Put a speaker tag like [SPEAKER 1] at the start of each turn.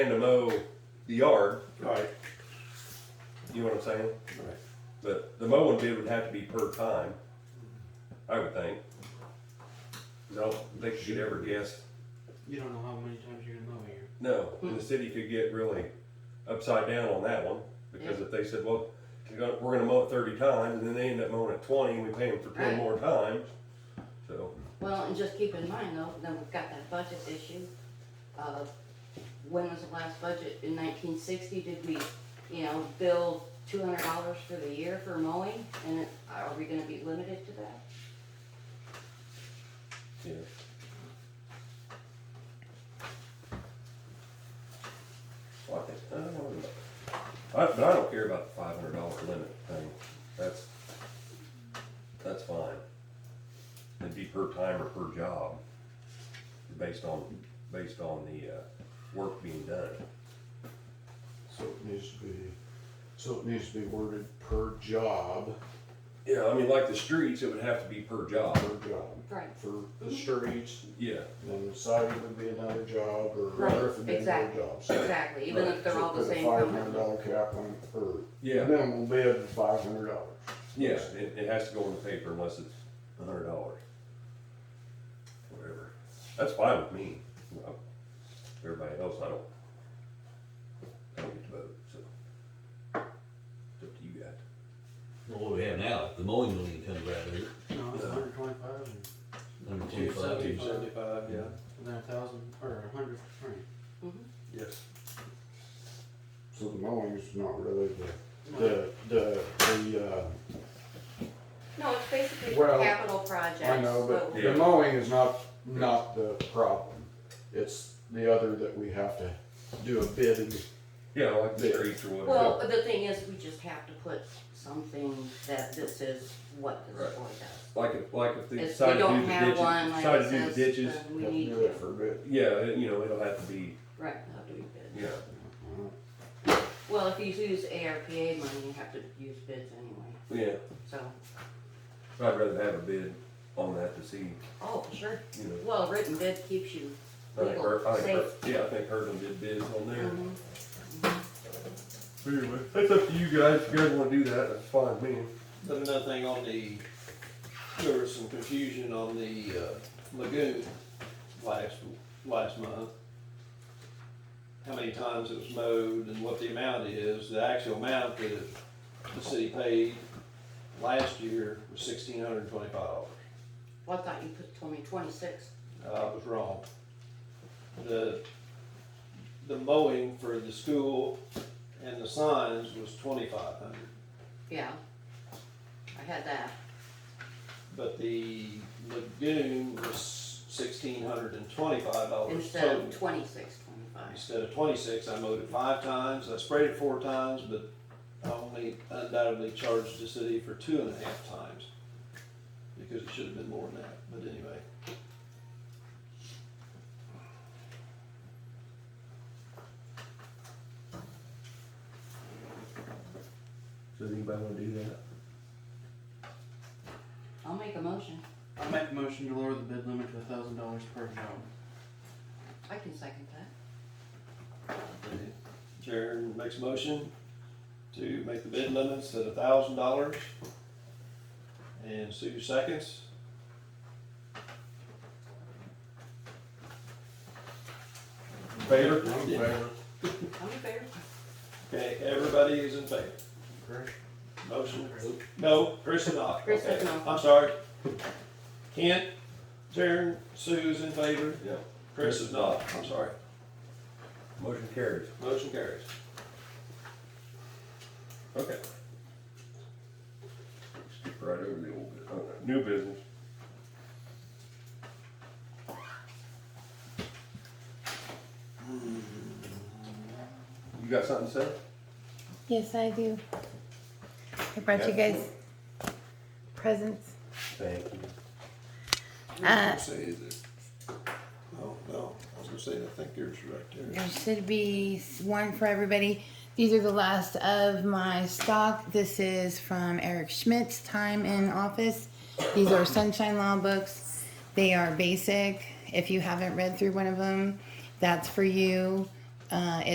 [SPEAKER 1] to mow the yard,
[SPEAKER 2] Right,
[SPEAKER 1] you know what I'm saying?
[SPEAKER 2] right.
[SPEAKER 1] But the mowing bid would have to be per time, I would think. No, they could ever guess,
[SPEAKER 3] You don't know how many times you're gonna mow here.
[SPEAKER 1] no, and the city could get really upside down on that one, because if they said, well, you're gonna- we're gonna mow it thirty times, and then they end up mowing it twenty, and we pay them for ten
[SPEAKER 4] Right.
[SPEAKER 1] more times, so.
[SPEAKER 4] Well, and just keep in mind though, then we've got that budget issue of when was the last budget in nineteen sixty? Did we, you know, bill two hundred dollars for the year for mowing? And it- are we gonna be limited to that?
[SPEAKER 1] Yeah. Well, I think, I don't know. I, but I don't care about the five hundred dollar limit thing, that's, that's fine. It'd be per time or per job, based on, based on the, uh, work being done.
[SPEAKER 2] So it needs to be, so it needs to be worded per job,
[SPEAKER 1] Yeah, I mean, like the streets, it would have to be per job,
[SPEAKER 2] per job,
[SPEAKER 4] Right.
[SPEAKER 2] for
[SPEAKER 4] Mm-hmm.
[SPEAKER 2] the streets,
[SPEAKER 1] yeah,
[SPEAKER 2] then the siding would be another job, or
[SPEAKER 4] Right,
[SPEAKER 2] whatever, would be another
[SPEAKER 4] exactly.
[SPEAKER 2] job. So-
[SPEAKER 4] Exactly, even if they're
[SPEAKER 2] so
[SPEAKER 4] all the
[SPEAKER 2] put a
[SPEAKER 4] same
[SPEAKER 2] Five hundred
[SPEAKER 4] company.
[SPEAKER 2] dollar cap on, or
[SPEAKER 1] yeah,
[SPEAKER 2] minimum bid of five hundred dollars.
[SPEAKER 1] yeah, it, it has to go in the paper unless it's a hundred dollars. Whatever, that's fine with me, Well, everybody else, I don't, I don't get to vote, so. It's up to you guys.
[SPEAKER 5] Well, What we have now, the mowing don't even come right here,
[SPEAKER 3] No, it's
[SPEAKER 1] Yeah.
[SPEAKER 3] hundred twenty-five and
[SPEAKER 5] number two,
[SPEAKER 3] two
[SPEAKER 5] five, two, seven.
[SPEAKER 3] seventy-five, yeah. And then a thousand, or a hundred, right.
[SPEAKER 1] Yes.
[SPEAKER 2] So the mowing's not really the,
[SPEAKER 3] No,
[SPEAKER 2] the, the, the, uh,
[SPEAKER 4] No, it's basically
[SPEAKER 2] Well,
[SPEAKER 4] capital projects.
[SPEAKER 2] I know, but
[SPEAKER 1] Yeah.
[SPEAKER 2] the mowing is not, not the problem. It's the other that we have to do a bid and
[SPEAKER 1] Yeah, like the streets or
[SPEAKER 4] Well,
[SPEAKER 1] whatever,
[SPEAKER 4] the thing is, we just have to put something that this is what this
[SPEAKER 1] Right.
[SPEAKER 4] board does.
[SPEAKER 1] like if, like if they
[SPEAKER 4] If we
[SPEAKER 1] decide to do
[SPEAKER 4] don't
[SPEAKER 1] the
[SPEAKER 4] have one
[SPEAKER 1] ditches,
[SPEAKER 4] like
[SPEAKER 1] decide
[SPEAKER 4] uh,
[SPEAKER 1] to do the
[SPEAKER 4] this,
[SPEAKER 1] ditches,
[SPEAKER 4] then we
[SPEAKER 2] have
[SPEAKER 4] need
[SPEAKER 2] to do
[SPEAKER 4] to,
[SPEAKER 2] it for a bid.
[SPEAKER 1] yeah, it- you know, it'll have to be,
[SPEAKER 4] right, how do we bid?
[SPEAKER 1] yeah,
[SPEAKER 4] Well, if you use ARPA money, you have to use bids anyway,
[SPEAKER 1] yeah,
[SPEAKER 4] so,
[SPEAKER 1] I'd rather have a bid on that to see,
[SPEAKER 4] oh, sure.
[SPEAKER 1] you know.
[SPEAKER 4] Well, written bid keeps you,
[SPEAKER 1] I think, Her- I think,
[SPEAKER 4] Safe.
[SPEAKER 1] Her- yeah, I think Herman did bids on there.
[SPEAKER 4] Mhm.
[SPEAKER 1] Anyway, that's up to you guys, if you guys wanna do that, that's fine, with me.
[SPEAKER 6] But another thing on the, there was some confusion on the uh, lagoon last, last month. How many times it was mowed and what the amount is, the actual amount that the city paid last year was sixteen hundred and twenty-five dollars.
[SPEAKER 4] well, I thought you put, told me twenty-six,
[SPEAKER 6] I was wrong. The, the mowing for the school and the signs was twenty-five hundred.
[SPEAKER 4] yeah. I had that,
[SPEAKER 6] But the lagoon was sixteen hundred and twenty-five
[SPEAKER 1] Oh,
[SPEAKER 6] dollars
[SPEAKER 4] instead
[SPEAKER 6] total.
[SPEAKER 4] of twenty-six, twenty-five,
[SPEAKER 6] Instead of twenty-six, I mowed it five times, I sprayed it four times, but I only undoubtedly charged the city for two and a half times. Because it should have been more than that, but anyway.
[SPEAKER 1] Does anybody wanna do that?
[SPEAKER 4] I'll make a motion,
[SPEAKER 3] I make a motion to lower the bid limit to a thousand dollars per job.
[SPEAKER 4] I can second that,
[SPEAKER 6] Jared makes a motion to make the bid limits at a thousand dollars. And Sue seconds.
[SPEAKER 1] Favor?
[SPEAKER 2] I'm in favor.
[SPEAKER 4] I'm in favor.
[SPEAKER 6] Okay, everybody is in favor.
[SPEAKER 3] Correct.
[SPEAKER 6] Motion, no, Chris is not.
[SPEAKER 4] Chris is
[SPEAKER 6] Okay,
[SPEAKER 4] not.
[SPEAKER 6] I'm sorry. Kent, Jaren, Sue's in favor,
[SPEAKER 1] Yeah,
[SPEAKER 6] Chris is not, I'm sorry.
[SPEAKER 1] motion carries.
[SPEAKER 6] Motion carries.
[SPEAKER 1] Okay. Skip right over the old, bu- uh, new business. You got something to say?
[SPEAKER 7] Yes, I do. I brought you guys presents.
[SPEAKER 1] Thank you.
[SPEAKER 7] Uh,
[SPEAKER 6] Oh, no, I was gonna say, I think yours is right there.
[SPEAKER 7] there should be s- one for everybody. These are the last of my stock. This is from Eric Schmidt's time in office. These are Sunshine Law books. They are basic. If you haven't read through one of them, that's for you. Uh,